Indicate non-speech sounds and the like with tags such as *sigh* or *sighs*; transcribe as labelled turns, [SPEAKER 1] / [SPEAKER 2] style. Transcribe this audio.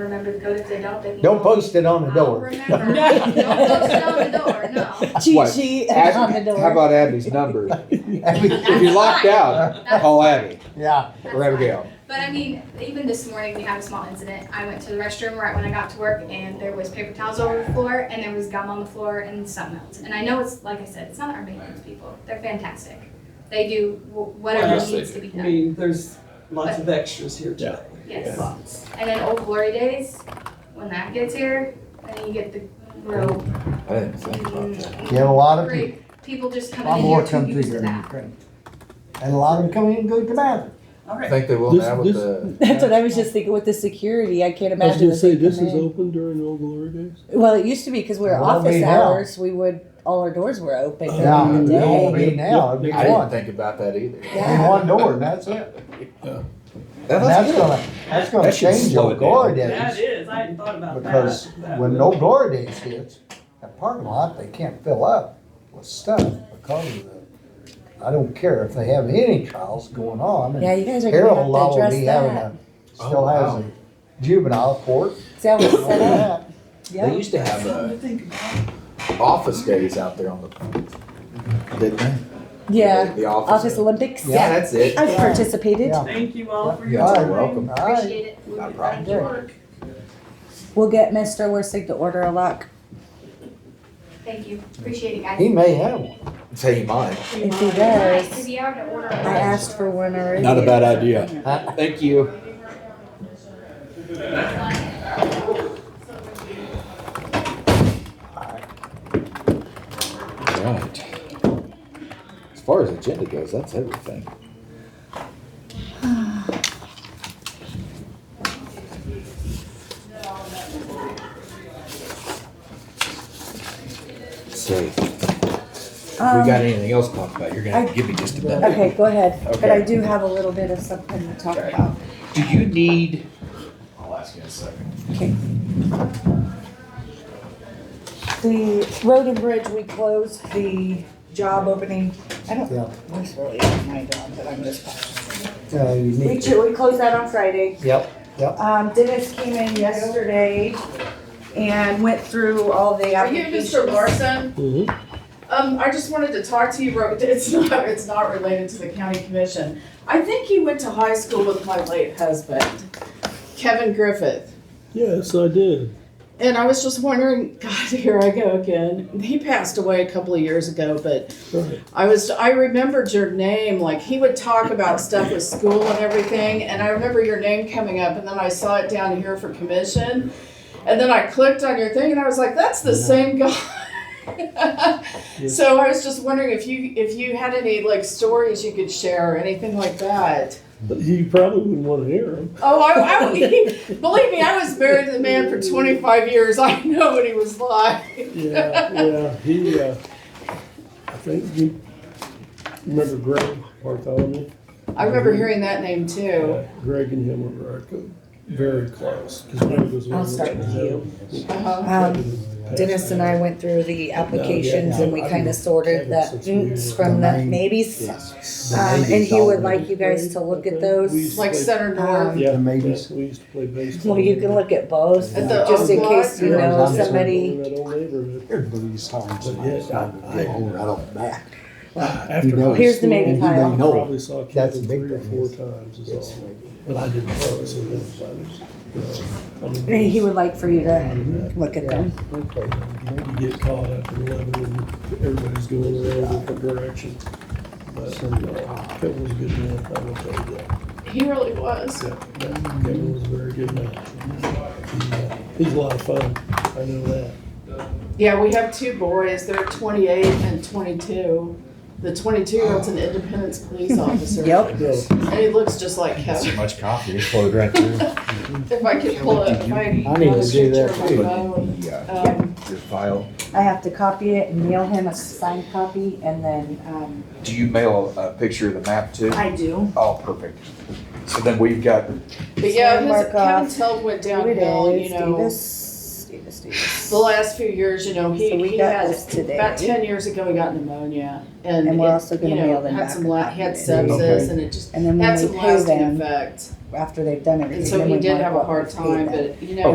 [SPEAKER 1] Remember the code if they don't, they can.
[SPEAKER 2] Don't post it on the
[SPEAKER 1] I'll
[SPEAKER 2] door. *laughs*
[SPEAKER 3] *laughs*
[SPEAKER 1] remember. Don't post it on the door, no.
[SPEAKER 3] Cheat
[SPEAKER 4] What?
[SPEAKER 3] sheet
[SPEAKER 4] Abby-
[SPEAKER 3] *laughs* on the
[SPEAKER 4] How
[SPEAKER 3] door.
[SPEAKER 4] about Abby's number?
[SPEAKER 2] *laughs*
[SPEAKER 4] If
[SPEAKER 2] Abby-
[SPEAKER 4] you're locked out,
[SPEAKER 1] That's
[SPEAKER 4] call
[SPEAKER 1] fine.
[SPEAKER 4] Abby
[SPEAKER 2] Yeah,
[SPEAKER 1] That's
[SPEAKER 4] or
[SPEAKER 1] fine.
[SPEAKER 4] Abigail.
[SPEAKER 1] But I mean, even this morning, we had a small incident. I went to the restroom right when I got to work and there was paper towels all over the floor and there was gum on the floor and something else. And I know it's, like I said, it's not our maintenance people. They're fantastic. They do wh- whatever
[SPEAKER 5] Yes,
[SPEAKER 6] they
[SPEAKER 1] needs to be
[SPEAKER 5] I
[SPEAKER 1] done.
[SPEAKER 5] mean, there's lots of extras here today.
[SPEAKER 1] Yes.
[SPEAKER 5] Lots.
[SPEAKER 1] And then Old Glory Days, when that gets here, then you get the row.
[SPEAKER 4] I didn't think about that.
[SPEAKER 2] you have a lot of people,
[SPEAKER 1] Great. People just
[SPEAKER 2] a
[SPEAKER 1] come
[SPEAKER 2] lot
[SPEAKER 1] in
[SPEAKER 2] more
[SPEAKER 1] here to
[SPEAKER 2] come through
[SPEAKER 1] use
[SPEAKER 2] here in
[SPEAKER 1] that.
[SPEAKER 2] Ukraine. And a lot of them come in and go to the bathroom.
[SPEAKER 5] All
[SPEAKER 4] I
[SPEAKER 5] right.
[SPEAKER 4] think they will
[SPEAKER 7] This-
[SPEAKER 4] now with
[SPEAKER 7] this-
[SPEAKER 4] the.
[SPEAKER 3] That's what I was just thinking with the security. I can't
[SPEAKER 7] I was
[SPEAKER 3] imagine.
[SPEAKER 7] gonna
[SPEAKER 3] that they
[SPEAKER 7] say, this
[SPEAKER 3] come
[SPEAKER 7] is
[SPEAKER 3] in.
[SPEAKER 7] open during Old Glory Days?
[SPEAKER 3] Well, it used to be because we were
[SPEAKER 2] It won't be
[SPEAKER 3] office
[SPEAKER 2] now.
[SPEAKER 3] hours, we would, all our doors were open
[SPEAKER 2] Yeah,
[SPEAKER 3] during
[SPEAKER 2] it
[SPEAKER 3] the
[SPEAKER 2] won't
[SPEAKER 3] day.
[SPEAKER 2] be now, it'll be
[SPEAKER 4] I didn't
[SPEAKER 2] one,
[SPEAKER 4] think about that either.
[SPEAKER 3] Yeah.
[SPEAKER 2] Be one door, and that's it. And that's gonna, that's gonna
[SPEAKER 4] That should
[SPEAKER 2] change
[SPEAKER 4] slow
[SPEAKER 2] your
[SPEAKER 4] it
[SPEAKER 2] glory
[SPEAKER 5] That
[SPEAKER 2] days,
[SPEAKER 5] is, I hadn't thought about that.
[SPEAKER 2] because
[SPEAKER 5] That
[SPEAKER 2] when
[SPEAKER 5] would-
[SPEAKER 2] no glory days hits, that parking lot, they can't fill up with stuff because of the, I don't care if they have any trials going on. and
[SPEAKER 3] Yeah, you guys are gonna
[SPEAKER 2] Harold
[SPEAKER 3] have
[SPEAKER 2] Law
[SPEAKER 3] to
[SPEAKER 2] will
[SPEAKER 3] address
[SPEAKER 2] be having
[SPEAKER 3] that.
[SPEAKER 2] a,
[SPEAKER 7] Oh,
[SPEAKER 2] still has a juvenile court.
[SPEAKER 3] See how it's
[SPEAKER 2] and all
[SPEAKER 3] set up?
[SPEAKER 2] that.
[SPEAKER 4] They
[SPEAKER 3] Yeah.
[SPEAKER 4] used to have
[SPEAKER 5] Something
[SPEAKER 4] uh,
[SPEAKER 5] to think about.
[SPEAKER 4] office days out there on the. Didn't they?
[SPEAKER 3] Yeah,
[SPEAKER 4] The office.
[SPEAKER 3] Office Olympics.
[SPEAKER 4] Yeah, that's it.
[SPEAKER 3] I've participated.
[SPEAKER 2] Yeah.
[SPEAKER 5] Thank you all for your
[SPEAKER 4] Yeah,
[SPEAKER 5] time.
[SPEAKER 4] you're welcome.
[SPEAKER 2] All right.
[SPEAKER 1] Appreciate it.
[SPEAKER 4] Not a
[SPEAKER 1] Back
[SPEAKER 4] problem.
[SPEAKER 1] to work.
[SPEAKER 3] We'll get Mr. Worsig to order a lock.
[SPEAKER 1] Thank you. Appreciate it, guys.
[SPEAKER 2] He may have one.
[SPEAKER 4] Tell you mine.
[SPEAKER 3] If he
[SPEAKER 1] Nice to
[SPEAKER 3] does,
[SPEAKER 1] be able to order.
[SPEAKER 3] I asked for one already.
[SPEAKER 7] Not a bad
[SPEAKER 3] *laughs*
[SPEAKER 7] idea.
[SPEAKER 4] Thank you. Right. As far as agenda goes, that's everything. *sighs* So, if we got
[SPEAKER 3] Um,
[SPEAKER 4] anything else to talk about, you're gonna have to give me just a minute.
[SPEAKER 3] Okay, go ahead, but
[SPEAKER 4] Okay.
[SPEAKER 3] I do have a little bit of something to talk
[SPEAKER 4] Okay.
[SPEAKER 3] about.
[SPEAKER 4] Do you need? I'll ask you in a second.
[SPEAKER 3] Okay. The road and bridge, we closed the job opening. I don't
[SPEAKER 2] Yeah.
[SPEAKER 3] know, this really is my job, but I'm just.
[SPEAKER 2] Uh, you
[SPEAKER 3] We,
[SPEAKER 2] need to.
[SPEAKER 3] ju- we closed that on Friday.
[SPEAKER 2] Yep, yep.
[SPEAKER 3] Um, Dennis came in yesterday and went through all the
[SPEAKER 8] Are you
[SPEAKER 3] applications.
[SPEAKER 8] Mr. Larson?
[SPEAKER 7] Mhm.
[SPEAKER 8] Um, I just wanted to talk to you, real- *laughs* it's not, it's not related to the county commission. I think he went to high school with my late husband, Kevin Griffith.
[SPEAKER 7] Yes, I did.
[SPEAKER 8] And I was just wondering, *laughs* God, here I go again. He passed away a couple of years ago, but
[SPEAKER 7] Right.
[SPEAKER 8] I was, I remembered your name, like, he would talk about stuff with school and everything, and I remember your name coming up, and then I saw it down here for commission. And then I clicked on your thing, and I was like, that's the same guy. *laughs* So I was just wondering if you, if you had any, like, stories you could share or anything like that.
[SPEAKER 7] But You probably wouldn't wanna hear them.
[SPEAKER 8] Oh, I, I would- believe me, I was married to the man for twenty-five years, I know what he was like.
[SPEAKER 7] Yeah, yeah, he, uh, I think you remember Greg Bartholomew?
[SPEAKER 8] I remember hearing that name too.
[SPEAKER 7] Yeah, Greg and him were very co- very close. 'cause Greg was one
[SPEAKER 3] I'll
[SPEAKER 7] of the-
[SPEAKER 3] start with you.
[SPEAKER 8] Uh-huh.
[SPEAKER 3] Um, Dennis and I went through the applications and we kind of sorted the oomph from the maybes.
[SPEAKER 7] Yes.
[SPEAKER 3] Um, and he would like you guys to look at those.
[SPEAKER 8] Like Center North.
[SPEAKER 7] Yeah,
[SPEAKER 2] The maybes.
[SPEAKER 7] yeah, we used to play baseball.
[SPEAKER 3] Well, you can look at both,
[SPEAKER 8] At the
[SPEAKER 3] just in
[SPEAKER 8] old
[SPEAKER 3] case you
[SPEAKER 8] lot?
[SPEAKER 3] know somebody.
[SPEAKER 7] That old neighborhood.
[SPEAKER 2] There's blues times.
[SPEAKER 7] But yes, I- I-
[SPEAKER 2] don't back.
[SPEAKER 7] After high
[SPEAKER 3] Here's the
[SPEAKER 7] school,
[SPEAKER 3] Navy
[SPEAKER 7] I
[SPEAKER 3] pile.
[SPEAKER 7] Probably saw
[SPEAKER 2] That's a
[SPEAKER 7] Kevin
[SPEAKER 2] big
[SPEAKER 7] three or
[SPEAKER 2] thing.
[SPEAKER 7] four times is all, but I didn't know, so that's why I was, you know, I
[SPEAKER 3] And
[SPEAKER 7] mean,
[SPEAKER 3] he would like for you to look at them.
[SPEAKER 2] Okay.
[SPEAKER 7] You get caught up in eleven and everybody's going in a different direction. But, uh, Kevin was a good man, I will tell you that.
[SPEAKER 8] He really was.
[SPEAKER 7] Yeah, yeah, Kevin was a very good man. He, uh, He's a lot of fun, I know that.
[SPEAKER 8] Yeah, we have two boys. They're 28 and 22. The 22 year old's an Independence police officer.
[SPEAKER 3] Yep.
[SPEAKER 7] No,
[SPEAKER 8] And he looks just like
[SPEAKER 4] That's too
[SPEAKER 8] Kevin.
[SPEAKER 4] much coffee, it flowed right through.
[SPEAKER 8] If I could pull it, if I,
[SPEAKER 2] I need to do that
[SPEAKER 8] picture of
[SPEAKER 4] Put
[SPEAKER 8] my
[SPEAKER 4] it
[SPEAKER 8] phone.
[SPEAKER 4] in the, uh,
[SPEAKER 8] Um,
[SPEAKER 4] Your file.
[SPEAKER 3] I have to copy it and mail him a signed copy and then, um,
[SPEAKER 4] Do you mail a picture of the map too?
[SPEAKER 3] I do.
[SPEAKER 4] Oh, perfect. So then we've got,
[SPEAKER 8] but yeah,
[SPEAKER 3] Mark
[SPEAKER 8] his,
[SPEAKER 3] off.
[SPEAKER 8] Kevin's health went
[SPEAKER 3] Here it
[SPEAKER 8] downhill,
[SPEAKER 3] is,
[SPEAKER 8] you know.
[SPEAKER 3] Davis, Davis,
[SPEAKER 8] The
[SPEAKER 3] Davis.
[SPEAKER 8] last few years, you know,
[SPEAKER 3] So
[SPEAKER 8] he,
[SPEAKER 3] we
[SPEAKER 8] he
[SPEAKER 3] got
[SPEAKER 8] had,
[SPEAKER 3] this today.
[SPEAKER 8] about 10 years ago, he got pneumonia. And,
[SPEAKER 3] And we're
[SPEAKER 8] it-
[SPEAKER 3] also gonna
[SPEAKER 8] you know,
[SPEAKER 3] mail them
[SPEAKER 8] had
[SPEAKER 3] back
[SPEAKER 8] some
[SPEAKER 3] a
[SPEAKER 8] la-
[SPEAKER 3] copy
[SPEAKER 8] Had
[SPEAKER 3] of it.
[SPEAKER 8] sepsis and it just
[SPEAKER 3] And then
[SPEAKER 8] had
[SPEAKER 3] when
[SPEAKER 8] some
[SPEAKER 3] we pay
[SPEAKER 8] lasting
[SPEAKER 3] them,
[SPEAKER 8] effect.
[SPEAKER 3] after they've done everything.
[SPEAKER 8] And so
[SPEAKER 3] then
[SPEAKER 8] he
[SPEAKER 3] we
[SPEAKER 8] did
[SPEAKER 3] mark
[SPEAKER 8] have a
[SPEAKER 3] what we
[SPEAKER 8] hard
[SPEAKER 3] paid
[SPEAKER 8] time,
[SPEAKER 3] them.
[SPEAKER 8] but you know,